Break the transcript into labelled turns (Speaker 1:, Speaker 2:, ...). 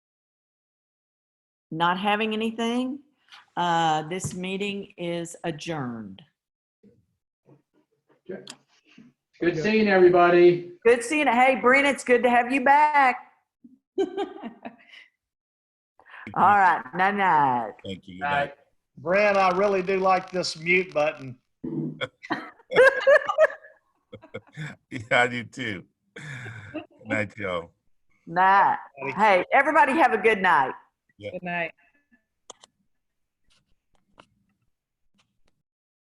Speaker 1: not having anything, uh, this meeting is adjourned.
Speaker 2: Good seeing everybody.
Speaker 1: Good seeing you. Hey, Brent, it's good to have you back. All right, night night.
Speaker 3: Thank you.
Speaker 2: Bye.
Speaker 4: Brad, I really do like this mute button.
Speaker 3: Yeah, I do too. Good night, y'all.
Speaker 1: Night. Hey, everybody have a good night.
Speaker 5: Good night.